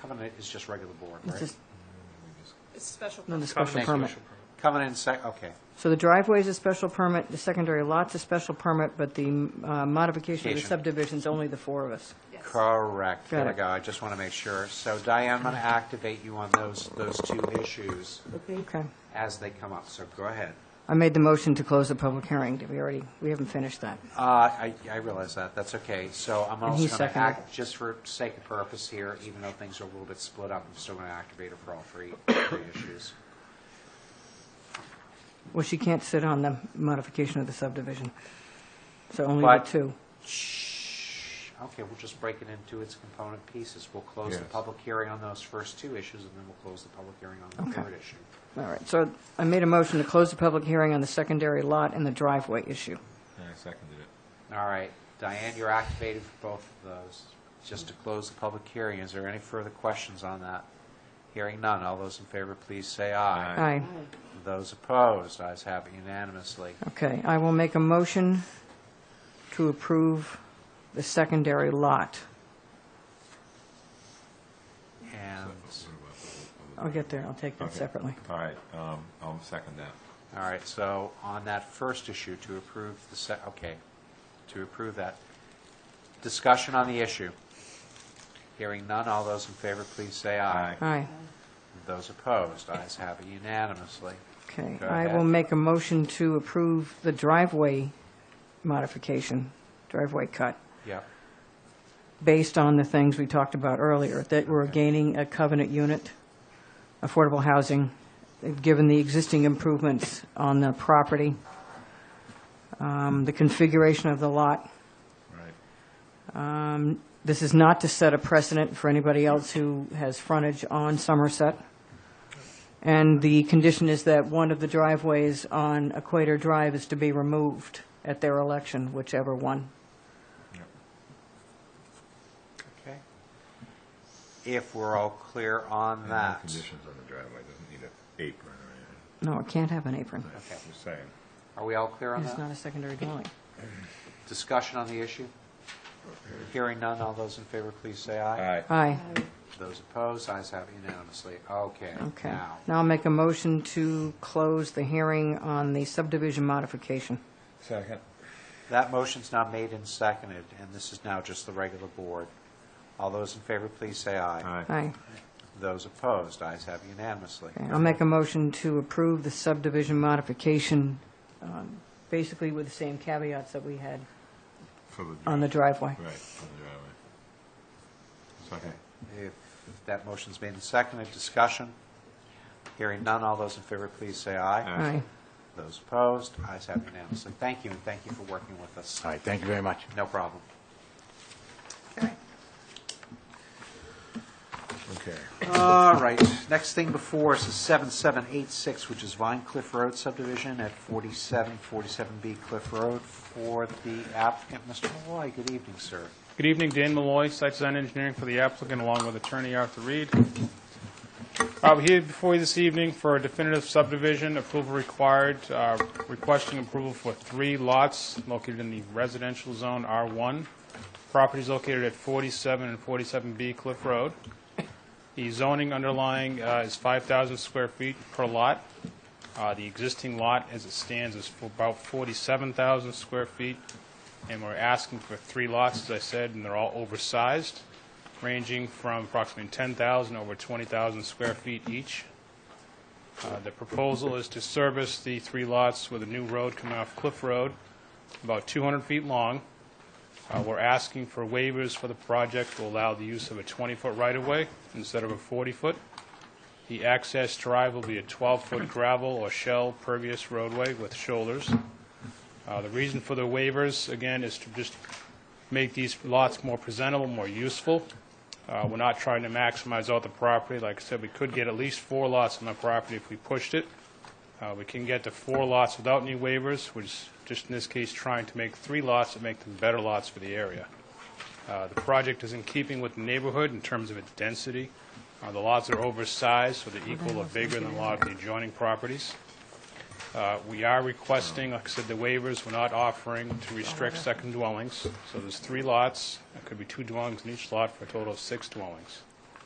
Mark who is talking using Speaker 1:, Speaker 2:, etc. Speaker 1: Covenant is just regular board,
Speaker 2: It's
Speaker 1: right?
Speaker 2: just,
Speaker 3: It's special.
Speaker 2: no, the
Speaker 3: permit.
Speaker 2: special
Speaker 1: Thank you.
Speaker 2: permit.
Speaker 1: Covenant and sec, okay.
Speaker 2: So the driveway's a special permit, the secondary lot's a special permit, but the uh, modification of the
Speaker 1: Cation.
Speaker 2: subdivision's only the four of us.
Speaker 3: Yes.
Speaker 1: Correct.
Speaker 2: Got
Speaker 1: There we
Speaker 2: it.
Speaker 1: go. I just want to make sure. So Diane, I'm going to activate you on those, those two issues
Speaker 2: Okay.
Speaker 1: as they come up, so go ahead.
Speaker 2: I made the motion to close the public hearing. Did we already, we haven't finished that.
Speaker 1: Uh, I, I realize that, that's okay. So I'm also
Speaker 2: he
Speaker 1: going to
Speaker 2: seconded
Speaker 1: act, just for sake of purpose here, even though things are a little bit split up, I'm still going to activate her for all three, three issues.
Speaker 2: Well, she can't sit on the modification of the subdivision, so only the
Speaker 1: But-
Speaker 2: two.
Speaker 1: Shh. Okay, we'll just break it into its component pieces. We'll close the
Speaker 4: Yes.
Speaker 1: public hearing on those first two issues, and then we'll close the public hearing on the
Speaker 2: Okay.
Speaker 1: third issue.
Speaker 2: All right, so I made a motion to close the public hearing on the secondary lot and the driveway issue.
Speaker 4: And I seconded it.
Speaker 1: All right, Diane, you're activated for both of those. Just to close the public hearing, is there any further questions on that? Hearing none, all those in favor, please say aye.
Speaker 2: Aye.
Speaker 1: Those opposed, ayes have it unanimously.
Speaker 2: Okay, I will make a motion to approve the secondary lot.
Speaker 1: And,
Speaker 2: I'll get there, I'll take that
Speaker 4: Okay.
Speaker 2: separately.
Speaker 4: All right, um, I'll second that.
Speaker 1: all right, so on that first issue, to approve the se, okay, to approve that. Discussion on the issue. Hearing none, all those in favor, please say aye.
Speaker 2: Aye.
Speaker 1: Those opposed, ayes have it unanimously.
Speaker 2: Okay,
Speaker 1: Go
Speaker 2: I will
Speaker 1: ahead.
Speaker 2: make a motion to approve the driveway modification, driveway cut,
Speaker 1: Yep,
Speaker 2: based on the things we talked about earlier, that we're gaining a covenant unit, affordable housing, given the existing improvements on the property, um, the configuration of the lot.
Speaker 4: Right.
Speaker 2: This is not to set a precedent for anybody else who has frontage on Somerset. And the condition is that one of the driveways on Equator Drive is to be removed at their election, whichever one.
Speaker 4: Yep.
Speaker 1: okay. If we're all clear on
Speaker 4: And no
Speaker 1: that.
Speaker 4: Conditions on the driveway, doesn't need an apron or anything.
Speaker 2: No, it can't have an apron.
Speaker 1: Okay.
Speaker 4: Just saying.
Speaker 1: Are we all clear on
Speaker 2: It's not
Speaker 1: that?
Speaker 2: a secondary dwelling.
Speaker 1: Discussion on the issue? Hearing none, all those in favor, please say aye.
Speaker 4: Aye.
Speaker 2: Aye.
Speaker 1: Those opposed, ayes have unanimously. Okay,
Speaker 2: Okay.
Speaker 1: now,
Speaker 2: Now I'll make a motion to close the hearing on the subdivision modification.
Speaker 4: Second.
Speaker 1: that motion's now made and seconded, and this is now just the regular board. All those in favor, please say aye.
Speaker 4: Aye.
Speaker 2: Aye.
Speaker 1: Those opposed, ayes have unanimously.
Speaker 2: Okay, I'll make a motion to approve the subdivision modification, um, basically with the same caveats that we had
Speaker 4: For
Speaker 2: on the driveway.
Speaker 4: Right, on the driveway. Second.
Speaker 1: If that motion's made and seconded, discussion? Hearing none, all those in favor, please say aye.
Speaker 4: Aye.
Speaker 2: Aye.
Speaker 1: Those opposed, ayes have unanimously. Thank you, and thank you for working with us.
Speaker 5: All right, thank you very much.
Speaker 1: No problem.
Speaker 4: Okay.
Speaker 1: All right, next thing before us is 7786, which is Vine Cliff Road subdivision at 4747B Cliff Road for the applicant, Mr. Malloy. Good evening, sir.
Speaker 6: Good evening, Dan Malloy, Site Design Engineering for the applicant, along with attorney Arthur Reed. I'm here before you this evening for a definitive subdivision approval required, uh, requesting approval for three lots located in the residential zone R1. Properties located at 47 and 47B Cliff Road. The zoning underlying uh, is 5,000 square feet per lot. Uh, The existing lot, as it stands, is for about 47,000 square feet, and we're asking for three lots, as I said, and they're all oversized, ranging from approximately 10,000 over 20,000 square feet each. Uh, The proposal is to service the three lots with a new road coming off Cliff Road, about 200 feet long. Uh, We're asking for waivers for the project to allow the use of a 20-foot right-of-way instead of a 40-foot. The access drive will be a 12-foot gravel or shell pervious roadway with shoulders. Uh, The reason for the waivers, again, is to just make these lots more presentable, more useful. Uh, We're not trying to maximize all the property. Like I said, we could get at least four lots on the property if we pushed it. Uh, We can get to four lots without any waivers, which is just in this case trying to make three lots that make them better lots for the area. Uh, The project is in keeping with the neighborhood in terms of its density. Uh, The lots are oversized, so they're equal or bigger than a lot of the adjoining properties. Uh, We are requesting, like I said, the waivers, we're not offering to restrict second dwellings. So there's three lots, there could be two dwellings in each lot for a total of six dwellings.